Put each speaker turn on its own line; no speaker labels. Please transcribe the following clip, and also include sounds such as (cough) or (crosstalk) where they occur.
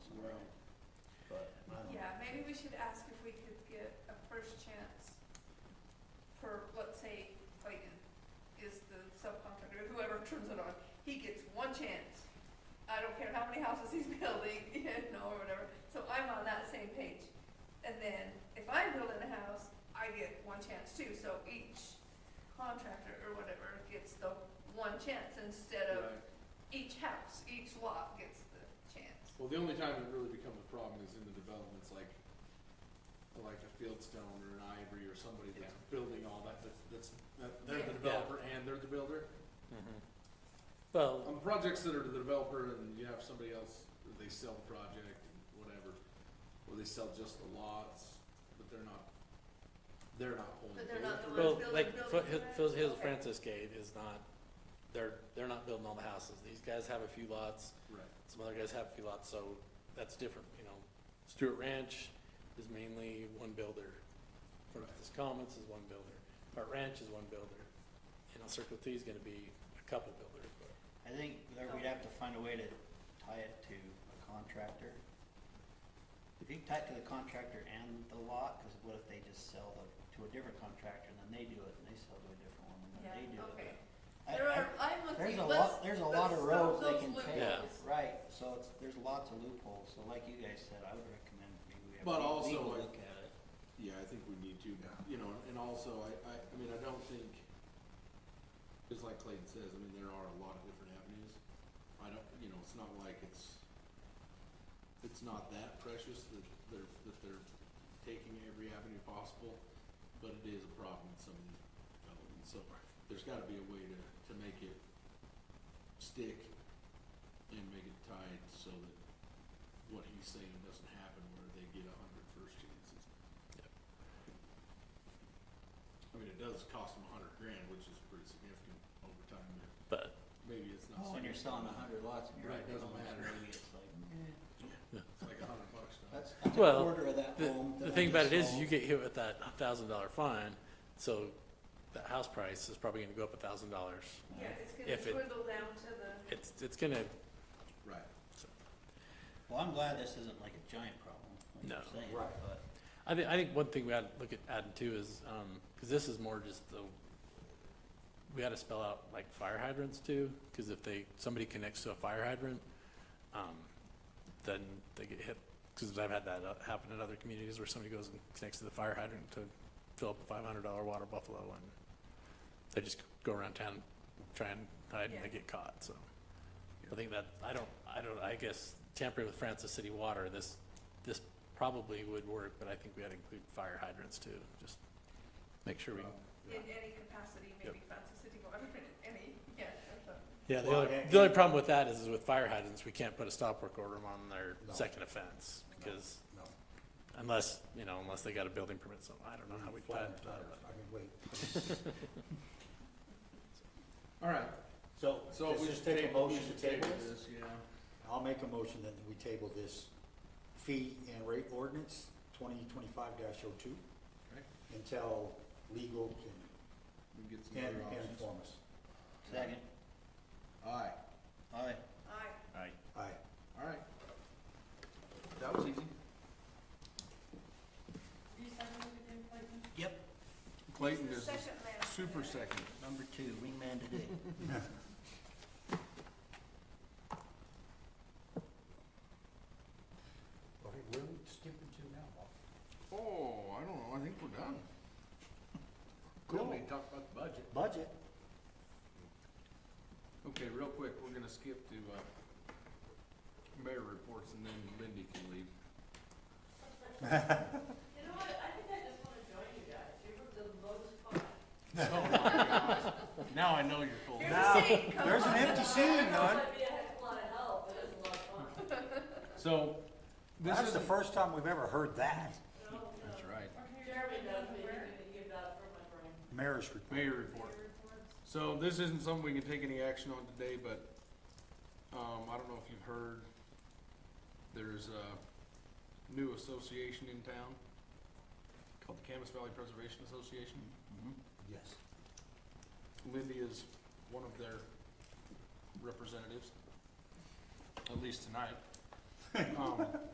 um,
we should ask if we could get a first chance for, let's say, Clayton is the subcontractor, whoever turns it on, he gets one chance. I don't care how many houses he's (laughs) building, you know, or whatever, so I'm on that same page. And then, if I'm building a house, I get one chance too, so each contractor or whatever gets the one chance instead of
Right.
each house, each lot gets the chance.
Well, the only time it really becomes a problem is in the developments like, like a Fieldstone or an Ivory or somebody that's building all that, that's, that's, that- they're the
Yeah.
developer and they're the builder.
Well,
On projects that are the developer and you have somebody else, they sell the project, whatever, or they sell just the lots, but they're not, they're not holding.
But they're not the
it.
ones
well,
building
like
buildings,
Foothill,
right?
Foothills
Okay.
Francis Gate is not, they're, they're not building all the houses. These guys have a few lots,
Right.
some other guys have a few lots, so that's different, you know. Stewart Ranch is mainly one builder. Francis Commons is one builder. Hart Ranch is one builder. You know, Circle T is gonna be a couple builders, but.
I think that we'd have to find a way to tie it to a contractor. If you tie it to the contractor and the lot, cause what if they just sell the, to a different contractor and then they do it and they sell to a different one and then
Yeah,
they do it.
okay.
I-
There
I-
are, I'm
There's
looking,
a
let's,
lot, there's a
let's
lot of
stop
roads
those
they can take,
loopholes.
right, so it's, there's lots of loopholes, so like you guys said, I would recommend maybe we have
But
a
also,
legal
like-
look at it.
Yeah, I think we need to, you know, and also, I, I, I mean, I don't think, just like Clayton says, I mean, there are a lot of different avenues. I don't, you know, it's not like it's, it's not that precious that they're, that they're taking every avenue possible, but it is a problem in some of these developments, so there's gotta be a way to, to make it stick and make it tied so that what he's saying doesn't happen where they get a hundred first chances. I mean, it does cost them a hundred grand, which is pretty significant over time, but
But.
maybe it's not.
Well, When Oh, you're selling a hundred lots and you're.
Oh, Right, doesn't
almost
matter.
Maybe it's like, eh,
It's like a hundred bucks now.
that's, that's a
Well,
quarter of that
The,
home. that
the
I
thing about it
just
is,
sold.
you get hit with that thousand dollar fine, so the house price is probably gonna go up a thousand dollars.
Yeah, it's
If it-
gonna dwindle down to the,
It's, it's gonna,
Right.
Well, I'm glad this isn't like a giant problem, like
No.
you're saying,
Right.
but
I think, I think one thing we ought to look at adding too is, um 'cause cause this is more just the, we ought to spell out like fire hydrants too, cause if they, somebody connects to a fire hydrant, um, then they get hit, cause I've had that uh, happen in other communities where somebody goes and connects to the fire hydrant to fill up a five hundred dollar water buffalo and they just go around town, try and hide and they
Yeah.
get caught, so. I think that, I don't, I don't, I guess tampering with Francis City Water, this, this probably would work, but I think we ought to include fire hydrants too, just make sure we.
in any capacity, maybe Francis City Water, in any, yeah, that's what-
Yeah, the
Well,
only,
and-
the only problem with that is, is with fire hydrants, we can't put a stop work order on their
No.
second offense,
No.
because
No.
unless, you know, unless they got a building permit, so I don't know how we plan that. but-
I mean, wait.
All right,
So,
(laughs) so
let's
we
just
should
take a
table, we
motion
should
to table
table
this?
this, yeah.
I'll make a motion that we table this fee and rate ordinance twenty twenty-five dash oh two
Okay.
until legal can,
We get some
can
other
can
options.
inform us.
second,
Aye,
aye.
I,
Aye.
all right. That was easy.
Yep.
Clayton
the
is the
second man.
super second.
Number two, wingman today.
Okay, where are we skipping to now, Bob?
Oh, I don't know, I think we're done.
Cool.
We talked about the budget.
Budget.
Okay, real quick, we're gonna skip to, uh, mayor reports and then Lindy can leave.
You know what, I think I just wanna join you guys, you were the most fun.
Oh my gosh. Now I know you're full.
Here's
Now,
a seat, come
There's an
on.
empty seat,
I
none.
know it might be a heck of a lot of help, but it was a lot of fun.
So, this
That's
is,
the first time we've ever heard that.
No, no.
that's right,
Jeremy knows me, he's gonna give that for my brain.
Mayor's report.
mayor report. So this isn't something we can take any action on today, but, um, I don't know if you've heard, there's a new association in town called the Camas Valley Preservation Association.
Yes.
Lindy is one of their representatives, at least tonight. (laughs) Um,